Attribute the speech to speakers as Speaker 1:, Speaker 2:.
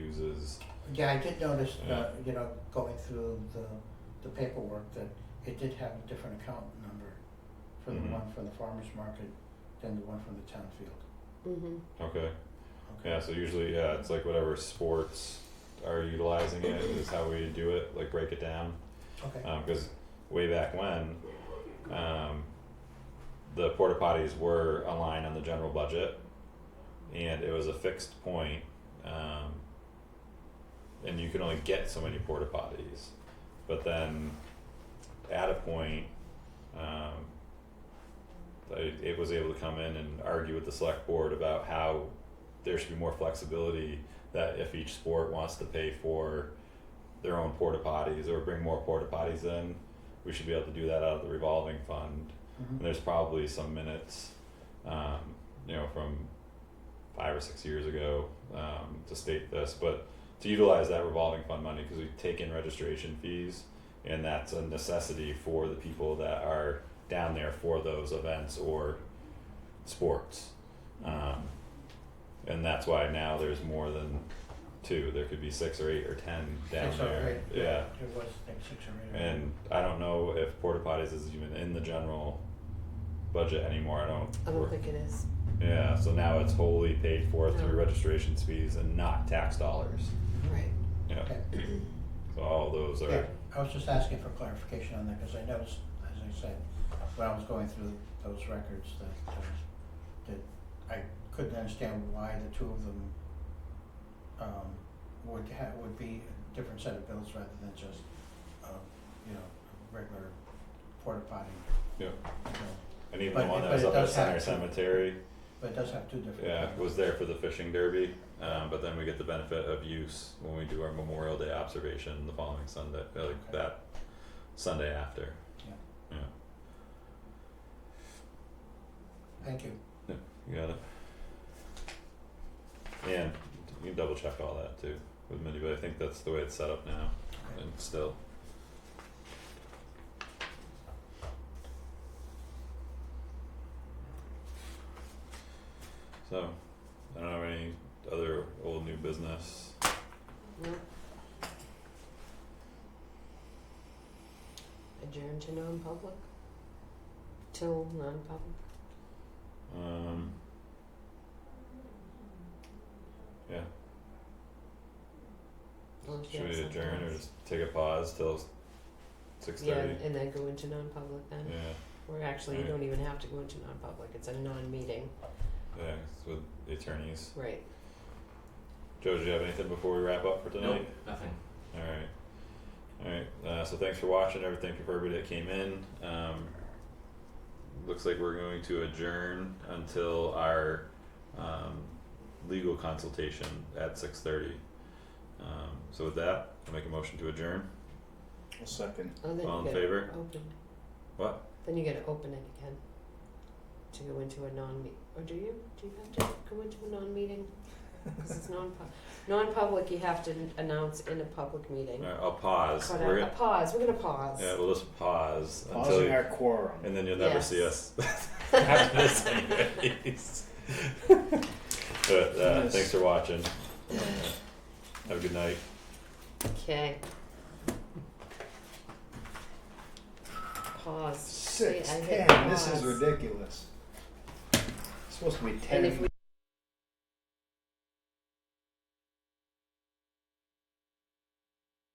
Speaker 1: Yeah, I did notice,
Speaker 2: Yeah.
Speaker 1: uh, you know, going through the, the paperwork that it did have a different account number for the
Speaker 2: Mhm.
Speaker 1: one from the farmer's market than the one from the town field.
Speaker 3: Mm-hmm.
Speaker 2: Okay.
Speaker 1: Okay.
Speaker 2: Yeah, so usually, yeah, it's like whatever sports are utilizing it is how we do it, like break it down.
Speaker 1: Okay,
Speaker 2: Because Uh, way back when, um, the porta potties were a line on the general budget, and it was a fixed point, um, and you could only get so many porta potties. But then, at a point, um, I, it was able to come in and argue with the select board about how there should be more flexibility. That if each sport wants to pay for their own porta potties or bring more porta potties in, we should be able to do that out of the revolving fund. And
Speaker 1: mhm,
Speaker 2: there's probably some minutes, um, you know, from five or six years ago um, to state this, but to utilize that revolving fund money because we take in registration fees, and that's a necessity for the people that are down there for those events or sports. Um, and that's why now there's more than two. There could be six or eight or ten down
Speaker 1: six
Speaker 2: there.
Speaker 1: or eight,
Speaker 2: yeah.
Speaker 1: yeah, it was, I think, six or eight.
Speaker 2: And I don't know if porta potties is even in the general budget anymore. I don't.
Speaker 3: I don't think it is.
Speaker 2: Yeah, so now it's wholly paid for through
Speaker 3: No.
Speaker 2: registration fees and not tax dollars.
Speaker 3: Right.
Speaker 2: Yeah,
Speaker 1: Okay.
Speaker 2: so all those are.
Speaker 1: Yeah, I was just asking for clarification on that, cause I noticed, as I said, when I was going through those records that, uh, that I couldn't understand why the two of them um, would ha would be a different set of bills rather than just, um, you know, a regular porta potty.
Speaker 2: Yeah.
Speaker 1: you know.
Speaker 2: And even
Speaker 1: But-
Speaker 2: the one
Speaker 1: but
Speaker 2: that was
Speaker 1: it
Speaker 2: up at
Speaker 1: does have
Speaker 2: Center
Speaker 1: to-
Speaker 2: Cemetery,
Speaker 1: But it does have two different.
Speaker 2: yeah, was there for the fishing derby, um, but then we get the benefit of use when we do our Memorial Day observation the following Sunday, uh, like
Speaker 1: Okay.
Speaker 2: that Sunday after.
Speaker 1: Yeah.
Speaker 2: Yeah,
Speaker 1: Thank you.
Speaker 2: you got it. And you can double check all that too with Mindy, but I think that's the way it's set up now.
Speaker 1: Okay.
Speaker 2: And still. So, I don't have any other old new business.
Speaker 3: No. Adjourn to non-public. Till non-public.
Speaker 2: Um. Yeah,
Speaker 3: Unless you
Speaker 2: should
Speaker 3: have
Speaker 2: we
Speaker 3: something
Speaker 2: adjourn or
Speaker 3: else.
Speaker 2: just take a pause till six
Speaker 3: Yeah,
Speaker 2: thirty?
Speaker 3: and then go into non-public then.
Speaker 2: Yeah,
Speaker 3: Or actually, you
Speaker 2: Right.
Speaker 3: don't even have to go into non-public. It's a non-meeting.
Speaker 2: yeah, it's with the attorneys.
Speaker 3: Right.
Speaker 2: Joe, did you have anything before we wrap up for tonight?
Speaker 4: Nope, nothing.
Speaker 2: Alright. Alright, uh, so thanks for watching, everything for everybody that came in, um. Looks like we're going to adjourn until our, um, legal consultation at six thirty. Um, so with that, I'll make a motion to adjourn,
Speaker 4: A second.
Speaker 3: Oh, then
Speaker 2: all
Speaker 3: you
Speaker 2: in
Speaker 3: gotta
Speaker 2: favor?
Speaker 3: open.
Speaker 2: What?
Speaker 3: Then you gotta open it again. To go into a non-meet, or do you? Do you have to go into a non-meeting? Because it's non-pub, non-public. You have to announce in a public meeting.
Speaker 2: Alright, I'll pause,
Speaker 3: But
Speaker 2: we're
Speaker 3: a, a
Speaker 2: gonna,
Speaker 3: pause. We're gonna pause.
Speaker 2: yeah, we'll just pause until,
Speaker 4: Pausing our quorum.
Speaker 2: and then you'll never see
Speaker 3: Yes.
Speaker 2: us after this anyways. But, uh, thanks for watching, have a good night.
Speaker 3: Okay. Pause. See,
Speaker 4: Six,
Speaker 3: I hit
Speaker 4: ten, this is
Speaker 3: pause.
Speaker 4: ridiculous. It's supposed to be
Speaker 3: And
Speaker 4: ten.
Speaker 3: if we